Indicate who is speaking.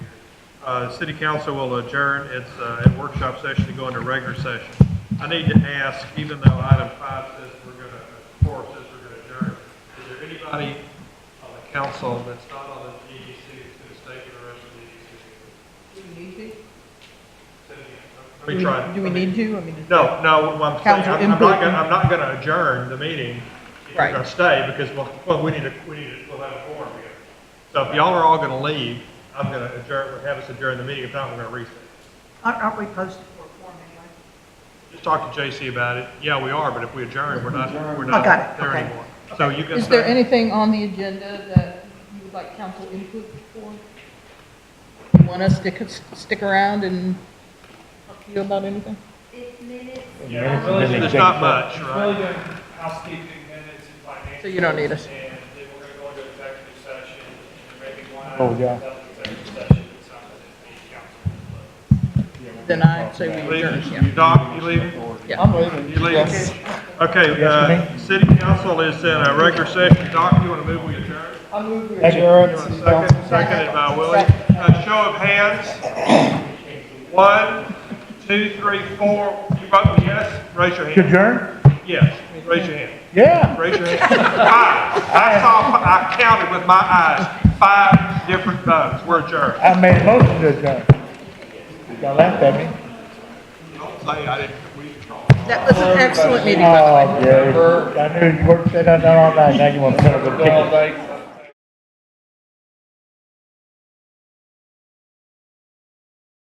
Speaker 1: Uh, City council will adjourn its uh, its workshop session to go into regular session. I need to ask, even though item five says we're going to, four says we're going to adjourn, is there anybody on the council that's not on the EDC that's going to stay for the rest of the EDC?
Speaker 2: Do we need to?
Speaker 1: Let me try.
Speaker 2: Do we
Speaker 1: let me-
Speaker 2: need to? I mean, is-
Speaker 1: No, no, what I'm saying,
Speaker 2: Council
Speaker 1: I'm I'm not
Speaker 2: input.
Speaker 1: gonna, I'm not gonna adjourn the meeting. If You're
Speaker 2: Right.
Speaker 1: gonna stay, because, well, well, we need to, we need to, we'll have a forum here. So if y'all are all gonna leave, I'm gonna adjourn, have us adjourn the meeting, if not, we're gonna recess.
Speaker 2: aren't aren't we posted for a form anyway?
Speaker 1: Just talk to JC about it, yeah, we are, but if we adjourn, we're not, we're
Speaker 2: I got
Speaker 1: not
Speaker 2: it,
Speaker 1: there
Speaker 2: okay.
Speaker 1: anymore. So you can
Speaker 2: Is there
Speaker 1: stay.
Speaker 2: anything on the agenda that you would like council input for? You Want us to c- stick around and talk to you about anything?
Speaker 3: It's minutes.
Speaker 4: Yeah.
Speaker 1: Really, There's not much, right?
Speaker 4: Really good housekeeping minutes and financials.
Speaker 2: So you don't need us.
Speaker 4: And then we're gonna go into executive session, and maybe one
Speaker 5: Oh,
Speaker 4: item,
Speaker 5: yeah.
Speaker 4: that's executive session, it's something that needs council.
Speaker 2: Then I'd say we adjourn, yeah.
Speaker 1: Leaving, Doc, you leaving?
Speaker 5: I'm leaving.
Speaker 1: You leaving? Okay, uh, city council is in a regular session, Doc, you wanna move, we adjourn?
Speaker 5: Adjourn, city council.
Speaker 1: Second, seconded by Willie. A show of hands. One, two, three, four. You vote yes, raise your hand.
Speaker 5: Adjourn?
Speaker 1: Yes, raise your hand.
Speaker 5: Yeah.
Speaker 1: Raise your hand. Five. I saw, I counted with my eyes, five different votes. We're adjourned.
Speaker 5: I made a motion to adjourn. Y'all laughed at me.
Speaker 1: Don't say I didn't, we control.
Speaker 2: That was an excellent meeting, by the way.
Speaker 5: Oh, yeah. I knew you worked that out all night, now you want to put up a ticket.